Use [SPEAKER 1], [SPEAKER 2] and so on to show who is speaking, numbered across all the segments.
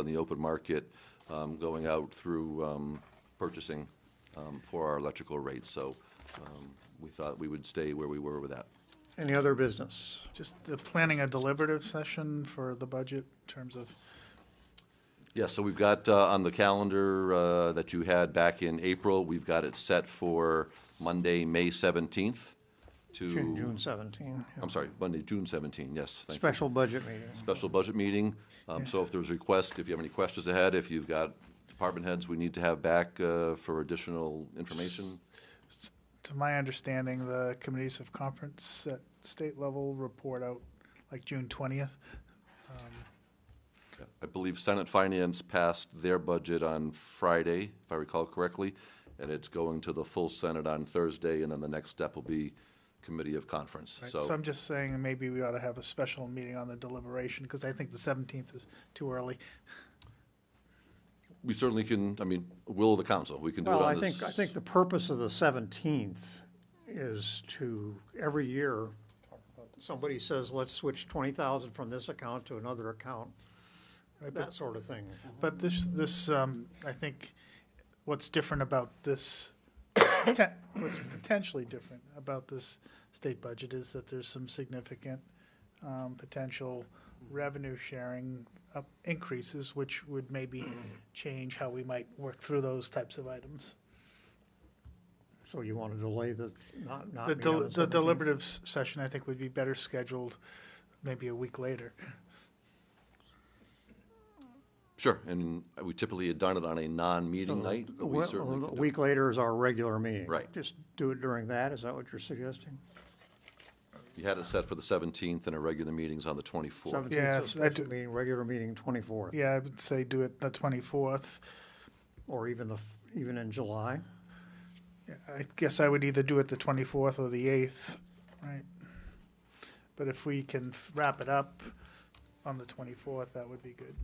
[SPEAKER 1] on the open market, um, going out through um, purchasing um, for our electrical rates. So um, we thought we would stay where we were with that.
[SPEAKER 2] Any other business?
[SPEAKER 3] Just the planning a deliberative session for the budget in terms of,
[SPEAKER 1] Yes, so we've got uh, on the calendar uh, that you had back in April, we've got it set for Monday, May 17th to.
[SPEAKER 2] June June 17. yeah.
[SPEAKER 1] I'm sorry, Monday, June 17, yes, thank you.
[SPEAKER 2] Special budget meeting.
[SPEAKER 1] Special budget meeting. Um, So if there's requests, if you have any questions ahead, if you've got department heads we need to have back uh, for additional information,
[SPEAKER 3] to my understanding, the committees of conference at state level report out like June twentieth.
[SPEAKER 1] I believe Senate Finance passed their budget on Friday, if I recall correctly, and it's going to the full Senate on Thursday, and then the next step will be Committee of Conference.
[SPEAKER 3] So
[SPEAKER 1] So,
[SPEAKER 3] I'm just saying maybe we ought to have a special meeting on the deliberation because I think the seventeenth is too early.
[SPEAKER 1] we certainly can, I mean, will of the council, we can do it
[SPEAKER 2] Well, I
[SPEAKER 1] on
[SPEAKER 2] think, I
[SPEAKER 1] this.
[SPEAKER 2] think the purpose of the 17th is to, every year, somebody says, let's switch 20,000 from this account to another account, that sort of thing.
[SPEAKER 3] But this, this, um, I think what's different about this, te- what's potentially different about this state budget is that there's some significant, um, potential revenue sharing up increases, which would maybe change how we might work through those types of items.
[SPEAKER 2] So you want to delay the, not, not
[SPEAKER 3] The
[SPEAKER 2] meet on
[SPEAKER 3] del- the
[SPEAKER 2] 17th?
[SPEAKER 3] deliberative s- session, I think, would be better scheduled maybe a week later.
[SPEAKER 1] Sure, and we typically had done it on a non-meeting night, but we
[SPEAKER 2] Well,
[SPEAKER 1] certainly
[SPEAKER 2] A
[SPEAKER 1] can do it.
[SPEAKER 2] week later is our regular meeting.
[SPEAKER 1] Right.
[SPEAKER 2] Just do it during that, is that what you're suggesting?
[SPEAKER 1] You had it set for the 17th, and our regular meeting's on the 24th.
[SPEAKER 2] 17th,
[SPEAKER 3] Yes,
[SPEAKER 2] so
[SPEAKER 3] I
[SPEAKER 2] special
[SPEAKER 3] do-
[SPEAKER 2] meeting, regular meeting 24th,
[SPEAKER 3] Yeah, I would say do it the 24th.
[SPEAKER 2] or even the, f- even in July?
[SPEAKER 3] I guess I would either do it the 24th or the 8th, right? But if we can f- wrap it up on the 24th, that would be good.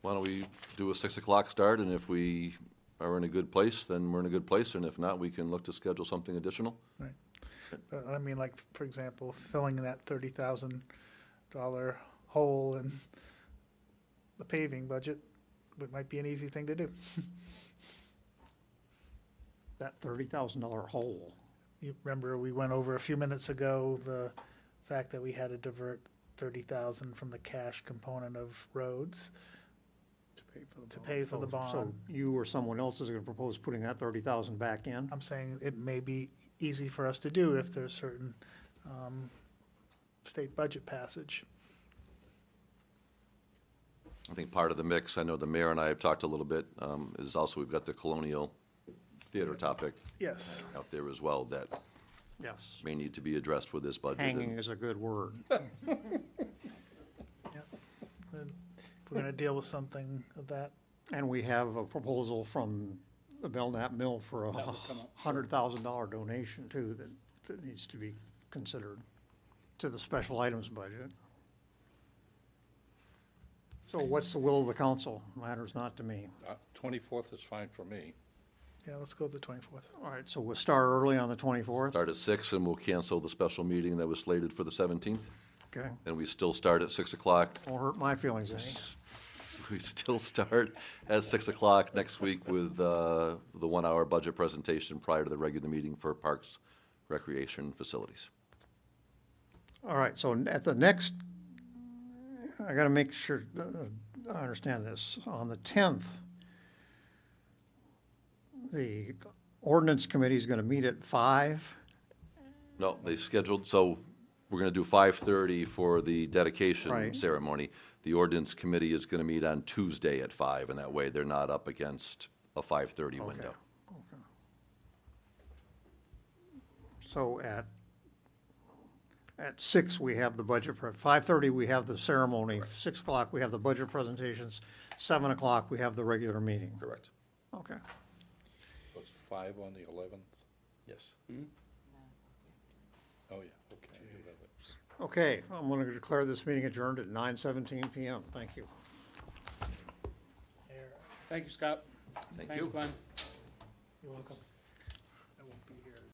[SPEAKER 1] Why don't we do a 6 o'clock start, and if we are in a good place, then we're in a good place, and if not, we can look to schedule something additional.
[SPEAKER 3] But I mean, like, for example, filling that $30,000 hole in the paving budget, it might be an easy thing to do.
[SPEAKER 2] That $30,000 hole.
[SPEAKER 3] You remember, we went over a few minutes ago, the fact that we had to divert 30,000 from the cash component of roads to pay for the bond.
[SPEAKER 2] So you or someone else is gonna propose putting that thirty thousand back in?
[SPEAKER 3] I'm saying it may be easy for us to do if there's certain um, state budget passage.
[SPEAKER 1] I think part of the mix, I know the mayor and I have talked a little bit, um, is also we've got the Colonial Theater topic
[SPEAKER 3] Yes.
[SPEAKER 1] out there as well that
[SPEAKER 2] Yes.
[SPEAKER 1] may need to be addressed with this budget. and-
[SPEAKER 2] Hanging is a good word.
[SPEAKER 3] And If we're going to deal with something of that,
[SPEAKER 2] And we have a proposal from the Belknap Mill for a hundred thousand dollar donation too that, that needs to be considered to the special items budget. So what's the will of the council? Matters not to me.
[SPEAKER 4] Uh, Twenty-fourth is fine for me.
[SPEAKER 3] yeah, let's go with the 24th.
[SPEAKER 2] All right, so we'll start early on the twenty-fourth,
[SPEAKER 1] Start at 6, and we'll cancel the special meeting that was slated for the 17th,
[SPEAKER 2] okay?
[SPEAKER 1] and we still start at 6 o'clock.
[SPEAKER 2] Won't hurt my feelings any.
[SPEAKER 1] We still start at 6 o'clock next week with uh, the one-hour budget presentation prior to the regular meeting for Parks Recreation Facilities.
[SPEAKER 2] All right, so n- at the next, I gotta make sure uh, I understand this. On the tenth, the ordinance committee is gonna meet at five.
[SPEAKER 1] No, they scheduled, so we're gonna do five-thirty for the dedication
[SPEAKER 2] Right.
[SPEAKER 1] ceremony. The ordinance committee is gonna meet on Tuesday at five, and that way they're not up against a five-thirty window.
[SPEAKER 2] So at, at six, we have the budget, five-thirty, we have the ceremony. Six o'clock, we have the budget presentations. Seven o'clock, we have the regular meeting.
[SPEAKER 1] Correct.
[SPEAKER 2] Okay.
[SPEAKER 4] Was five on the eleventh?
[SPEAKER 1] Yes.
[SPEAKER 4] Oh, yeah, okay. I do have it.
[SPEAKER 2] Okay, I'm gonna declare this meeting adjourned at nine seventeen PM. Thank you.
[SPEAKER 3] There.
[SPEAKER 5] Thank you, Scott.
[SPEAKER 1] Thank
[SPEAKER 5] Thanks,
[SPEAKER 1] you.
[SPEAKER 5] Glenn.
[SPEAKER 3] You're welcome.